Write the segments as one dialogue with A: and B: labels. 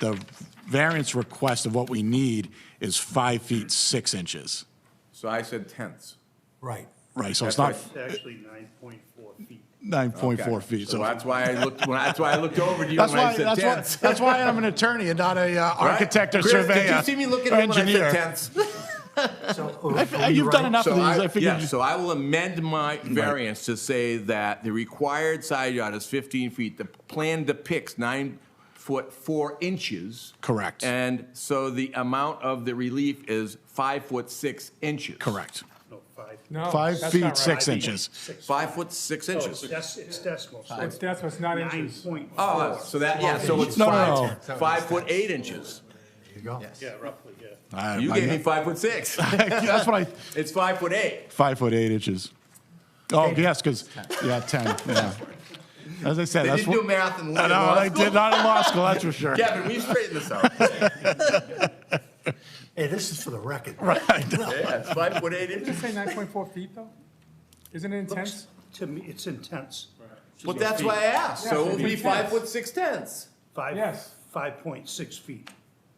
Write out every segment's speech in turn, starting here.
A: the variance request of what we need is five feet, six inches,
B: So I said tenths.
C: Right.
A: right? So it's not
B: That's
D: It's actually nine point four feet.
A: nine point
B: Okay.
A: four feet,
B: So
A: so.
B: that's why I looked, when- that's why I looked over to you
A: That's
B: when I
A: why,
B: said
A: that's why,
B: tenths.
A: that's why I'm an attorney and not a uh,
B: Right?
A: architect or
B: Chris,
A: surveyor.
B: Did you see me looking at him when
A: uh,
B: I
A: engineer. Uh,
B: said tenths?
C: So
A: You've done enough of
B: So
A: these,
B: I,
A: I
B: yeah,
A: figured. you-
B: so I will amend my variance to say that the required side yard is 15 feet. The plan depicts nine foot, four inches.
A: Correct.
B: And so the amount of the relief is five foot, six inches.
A: Correct.
D: No, five.
E: No,
A: Five
E: that's not
A: feet,
E: right.
A: six
D: Five feet,
A: inches.
D: six.
B: Five foot, six
D: Oh,
B: inches.
D: it's dec- it's decimal, so
E: It's
D: it's
E: that's what's not
D: nine
E: inches.
D: point
B: Oh,
D: four.
B: so that, yeah, so it's
A: No, no,
B: five, five foot, eight inches.
D: Yeah, roughly, yeah.
A: I-
B: You
A: I-
B: gave me five foot, six.
A: That's what I,
B: It's five foot, eight.
A: five foot eight inches. Oh, yes, because, yeah, ten, yeah. As I said,
B: They
A: that's
B: didn't do
A: what,
B: math in
A: I know, they
B: law
A: did
B: school.
A: not in law school, that's for sure.
B: Kevin, we straightened this out.
C: Hey, this is for the record.
B: Yeah, it's five foot, eight inches.
E: Did you say nine point four feet though? Isn't it intense?
D: To me, it's intense.
B: Well, that's why I asked. So it'll be five foot six tenths.
D: Five,
E: Yes.
D: five point six feet.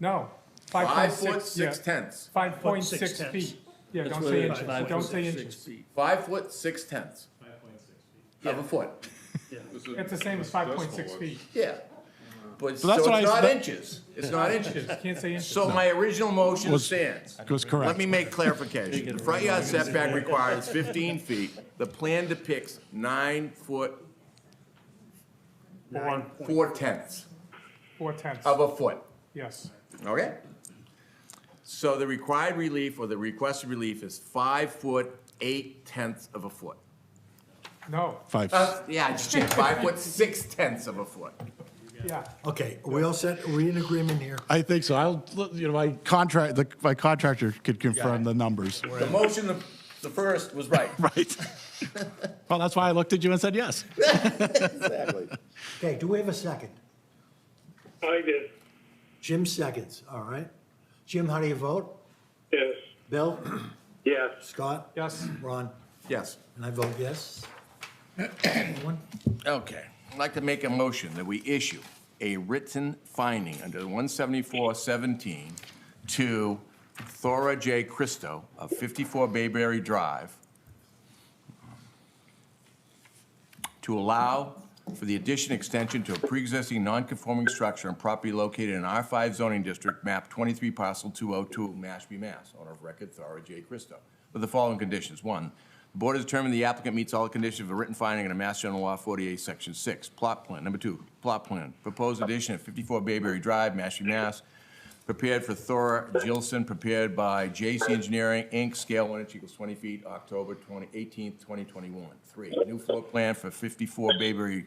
E: No.
B: Five
E: 5.6,
B: foot six
E: yeah.
B: tenths.
E: Five point
D: Foot,
E: six
D: six tenths.
E: feet. Yeah, don't say inches, don't say inches.
B: Five foot six tenths. Of a foot.
E: It's the same as five point six feet.
B: Yeah. But so
A: that's
B: it's
A: what I
B: not
A: said.
B: inches. It's not inches.
E: Can't say inches.
B: So my original motion
A: Was-
B: stands.
A: was correct.
B: Let me make clarification. The front yard setback required is fifteen feet. The plan depicts nine foot,
E: Four,
B: four tenths
E: four tenths,
B: of a foot.
E: yes.
B: Okay? So the required relief or the requested relief is five foot, eight tenths of a foot.
E: No,
A: Five,
B: Uh, yeah, I just changed five foot, six tenths of a foot.
E: yeah.
C: Okay, we all set, are we in agreement here?
A: I think so, I'll, you know, my contract, the- my contractor could confirm the numbers.
B: The motion, the- the first was right.
A: Right. Well, that's why I looked at you and said yes.
C: Okay, do we have a second?
F: I did,
C: Jim seconds, all right. Jim, how do you vote?
F: yes,
C: Bill?
F: yes.
C: Scott?
E: Yes.
C: Ron?
B: Yes.
C: And I vote yes. Anyone?
B: Okay. I'd like to make a motion that we issue a written finding under 174-17 to Thora J. Cristo of 54 Bayberry Drive to allow for the addition extension to a pre-existing non-conforming structure and property located in R5 zoning district, map 23, parcel 202, Mashpee, Mass. Owner of record, Thora J. Cristo, with the following conditions. One, the board has determined the applicant meets all the conditions of a written finding under Mass General Law 48, Section 6. Plot plan, number two, plot plan, proposed addition at 54 Bayberry Drive, Mashpee, Mass. Prepared for Thora Gilson, prepared by JC Engineering, Inc., scale one inch equals 20 feet, October 20, 18th, 2021. Three, new floor plan for 54 Bayberry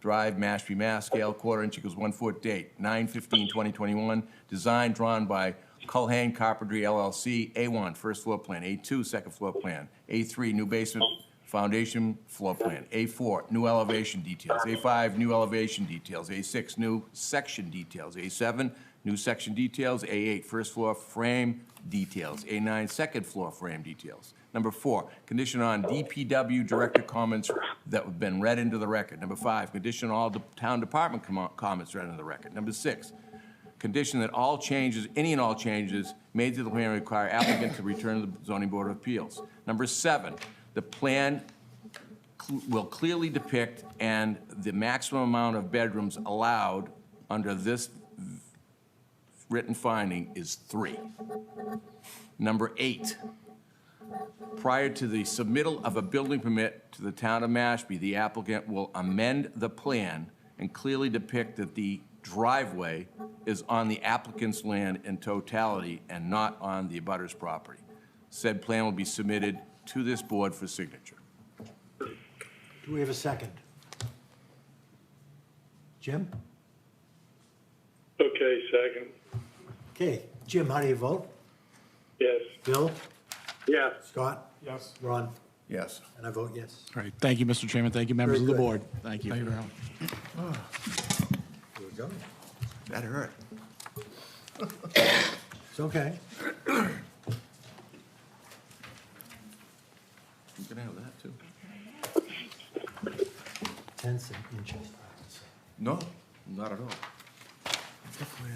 B: Drive, Mashpee, Mass., scale quarter inch equals one foot, date 9/15/2021. Design drawn by Culhane Carpentry LLC, A1, first floor plan, A2, second floor plan, A3, new basement foundation floor plan, A4, new elevation details, A5, new elevation details, A6, new section details, A7, new section details, A8, first floor frame details, A9, second floor frame details. Number four, condition on DPW director comments that have been read into the record. Number five, condition all the town department commo- comments read into the record. Number six, condition that all changes, any and all changes made to the plan require applicant to return to the zoning board of appeals. Number seven, the plan cl- will clearly depict and the maximum amount of bedrooms allowed under this v- written finding is three. Number eight, prior to the submittal of a building permit to the town of Mashpee, the applicant will amend the plan and clearly depict that the driveway is on the applicant's land in totality and not on the abutter's property. Said plan will be submitted to this board for signature.
C: Do we have a second? Jim?
F: Okay, second,
C: Okay, Jim, how do you vote?
F: yes,
C: Bill?
F: yes.
C: Scott?
E: Yes.
C: Ron?
B: Yes.
C: And I vote yes.
A: All right, thank you, Mr. Chairman, thank you, members of
C: Very
A: the
C: good.
A: board. Thank you.
C: Here we go.
B: That hurt.
C: It's okay.
B: You can have that, too.
C: Tenths and inches.
B: No, not at all.